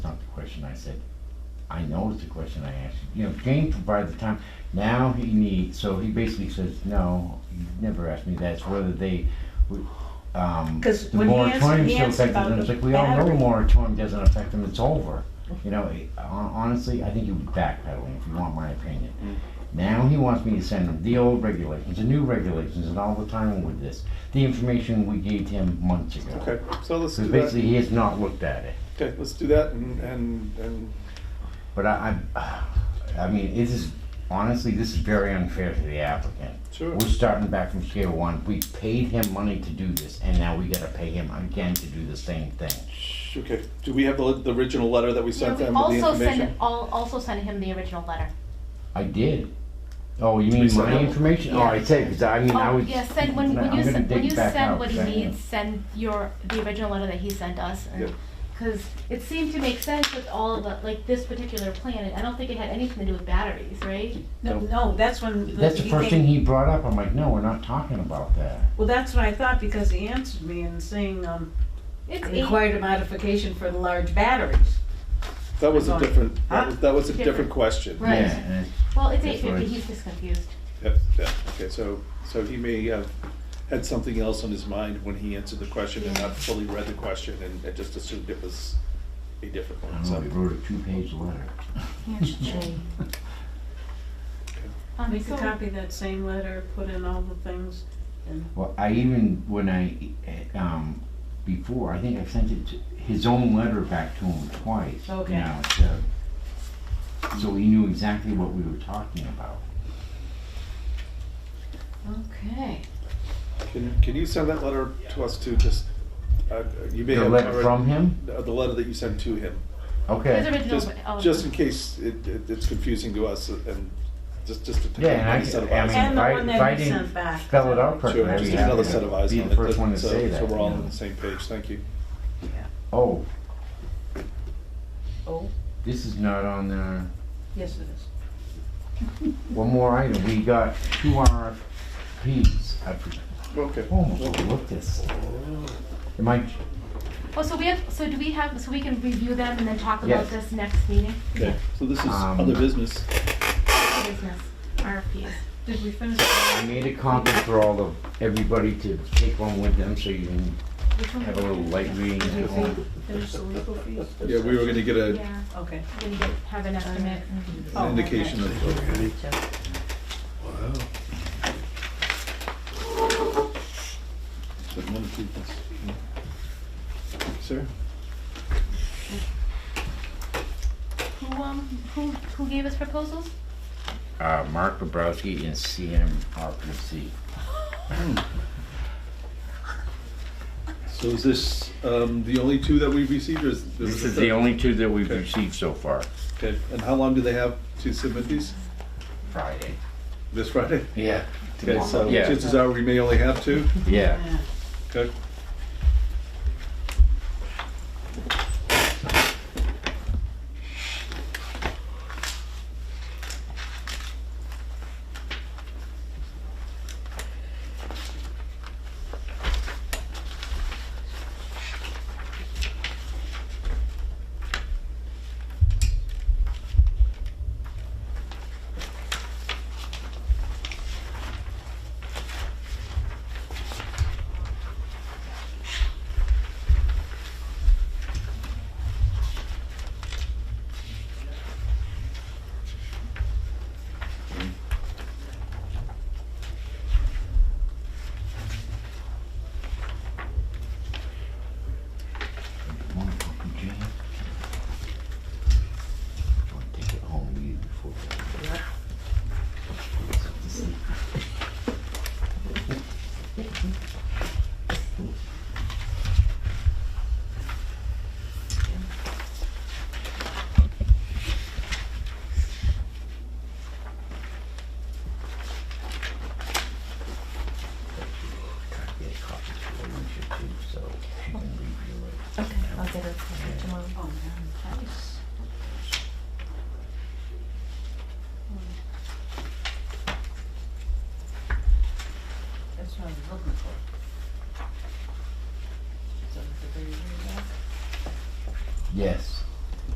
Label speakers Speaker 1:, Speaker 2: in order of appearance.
Speaker 1: question, I said, I know it's a question I asked you, you know, Jane provided the time, now he needs, so he basically says, no, you never asked me that, it's whether they, would, um,
Speaker 2: 'Cause
Speaker 1: the
Speaker 2: when he answered-
Speaker 1: moratorium
Speaker 2: he
Speaker 1: still
Speaker 2: answered
Speaker 1: affected them,
Speaker 2: about
Speaker 1: it's
Speaker 2: the
Speaker 1: like, we all know the
Speaker 2: battery.
Speaker 1: moratorium doesn't affect them, it's over. You know, it- hon- honestly, I think he was backpedaling, if you want my opinion.
Speaker 3: Mm.
Speaker 1: Now he wants me to send him the old regulations, the new regulations, and all the time with this, the information we gave him months ago.
Speaker 3: Okay, so let's do
Speaker 1: Because
Speaker 3: that.
Speaker 1: basically, he has not looked at it.
Speaker 3: Okay, let's do that and, and, and,
Speaker 1: But I, I, I mean, this is, honestly, this is very unfair to the applicant.
Speaker 3: Sure.
Speaker 1: We're starting back from scale one. We paid him money to do this, and now we gotta pay him again to do the same thing.
Speaker 3: sh- okay, do we have the, the original letter that we
Speaker 4: Yeah,
Speaker 3: sent
Speaker 4: we
Speaker 3: them with the
Speaker 4: also send,
Speaker 3: information?
Speaker 4: al- also send him the original letter.
Speaker 1: I did. Oh, you mean
Speaker 3: Lisa,
Speaker 1: my
Speaker 3: no.
Speaker 1: information? Oh, I said, because I mean, I
Speaker 4: Oh,
Speaker 1: was.
Speaker 4: yeah, send, when, when
Speaker 1: I'm
Speaker 4: you
Speaker 1: gonna
Speaker 4: send, when
Speaker 1: dig
Speaker 4: you
Speaker 1: back out,
Speaker 4: send what he
Speaker 1: 'cause I-
Speaker 4: needs, send your, the original letter that he sent us. and-
Speaker 3: Yeah.
Speaker 4: Cause it seemed to make sense with all of the, like this particular plan, I don't think it had anything to do with batteries, right?
Speaker 2: No, no, that's when.
Speaker 1: That's the
Speaker 2: he
Speaker 1: first
Speaker 2: came-
Speaker 1: thing he brought up. I'm like, no, we're not talking about that.
Speaker 2: Well, that's what I thought because he answered me and saying, um,
Speaker 4: It's eight,
Speaker 2: required a modification for the large batteries.
Speaker 3: That was a different, that
Speaker 2: Huh?
Speaker 3: was, that was a different
Speaker 4: Different.
Speaker 3: question.
Speaker 4: Right.
Speaker 1: Yeah, and it's-
Speaker 4: well, it's
Speaker 1: That's
Speaker 4: eight fifty,
Speaker 1: right.
Speaker 4: he's just confused.
Speaker 3: Yep, yeah, okay, so, so he may have had something else on his mind when he answered the question and not fully read the question and, and just assumed it was a different
Speaker 1: I
Speaker 3: one,
Speaker 1: don't know,
Speaker 3: so.
Speaker 1: he wrote a two-page letter.
Speaker 4: Um,
Speaker 2: Make a
Speaker 4: so-
Speaker 2: copy of that same letter, put in all the things.
Speaker 1: Well, I even, when I, eh, um, before, I think I sent it to, his own letter back to him twice. you
Speaker 2: Okay.
Speaker 1: know, so- So he knew exactly what we were talking about.
Speaker 4: Okay,
Speaker 3: Can, can you send that letter to us too, just, uh, you may
Speaker 1: The
Speaker 3: have.
Speaker 1: letter
Speaker 3: already-
Speaker 1: from him?
Speaker 3: uh, The letter that you sent to him.
Speaker 4: his
Speaker 1: Okay.
Speaker 4: original,
Speaker 3: Just,
Speaker 4: oh,
Speaker 3: just in case it, it, it's confusing to us and just, just to pick
Speaker 1: Yeah,
Speaker 3: up
Speaker 1: and I
Speaker 3: another set of
Speaker 1: can- I
Speaker 3: eyes.
Speaker 1: mean,
Speaker 2: And the
Speaker 1: if I-
Speaker 2: one
Speaker 1: if I
Speaker 2: that he
Speaker 1: didn't
Speaker 2: sent back.
Speaker 1: Spell it out
Speaker 3: Sure,
Speaker 1: correctly. I'd
Speaker 3: just
Speaker 1: be
Speaker 3: another
Speaker 1: happy
Speaker 3: set
Speaker 1: to
Speaker 3: of eyes
Speaker 1: Be
Speaker 3: on
Speaker 1: the
Speaker 3: it,
Speaker 1: first one to
Speaker 3: so-
Speaker 1: say that.
Speaker 3: So we're all
Speaker 1: you
Speaker 3: on
Speaker 1: know.
Speaker 3: the same page, thank you.
Speaker 1: Oh,
Speaker 2: Oh,
Speaker 1: this is not on there.
Speaker 2: yes it is.
Speaker 1: One more item. We got two RFPs. I for-
Speaker 3: Okay.
Speaker 1: almost overlooked Oh, this. Am I,
Speaker 4: oh, so we have, so do we have, so we can review them and then talk
Speaker 1: Yes.
Speaker 4: about this next meeting?
Speaker 3: Okay, so this is
Speaker 1: Um,
Speaker 3: other business.
Speaker 4: Business, RFPs.
Speaker 2: Did we finish?
Speaker 1: I made a copy for all of, everybody to take one with them so you can
Speaker 4: Which one?
Speaker 1: have a little light reading
Speaker 2: Did
Speaker 1: at
Speaker 2: we
Speaker 1: home.
Speaker 2: finish the legal fees?
Speaker 3: Yeah, we were gonna get a,
Speaker 4: Yeah,
Speaker 2: Okay.
Speaker 4: we didn't get, have an estimate.
Speaker 2: Oh,
Speaker 3: an indication
Speaker 2: okay.
Speaker 1: Oh,
Speaker 3: of, of- of one of two things. Sir?
Speaker 4: Who, um, who, who gave us proposals?
Speaker 1: Uh, Mark Bobrowski and CMRPC.
Speaker 3: So is this, um, the only two that we've received or is? there was
Speaker 1: This
Speaker 3: a
Speaker 1: is
Speaker 3: third?
Speaker 1: the only two that we've
Speaker 3: Okay.
Speaker 1: received so far,
Speaker 3: Okay, and how long do they have to submit these?
Speaker 1: Friday.
Speaker 3: This Friday?
Speaker 1: Yeah.
Speaker 3: Okay, so
Speaker 1: Yeah.
Speaker 3: chances are we may only have two,
Speaker 1: Yeah.
Speaker 2: Yeah.
Speaker 3: okay?
Speaker 1: Wanna fucking jam? Wanna take it home with you before- Try to get a copy for Alicia too, so she can review it.
Speaker 5: Okay, I'll get it for tomorrow.
Speaker 2: Oh, man, nice. That's what I was looking for. Is that at the very, very back?
Speaker 1: Yes.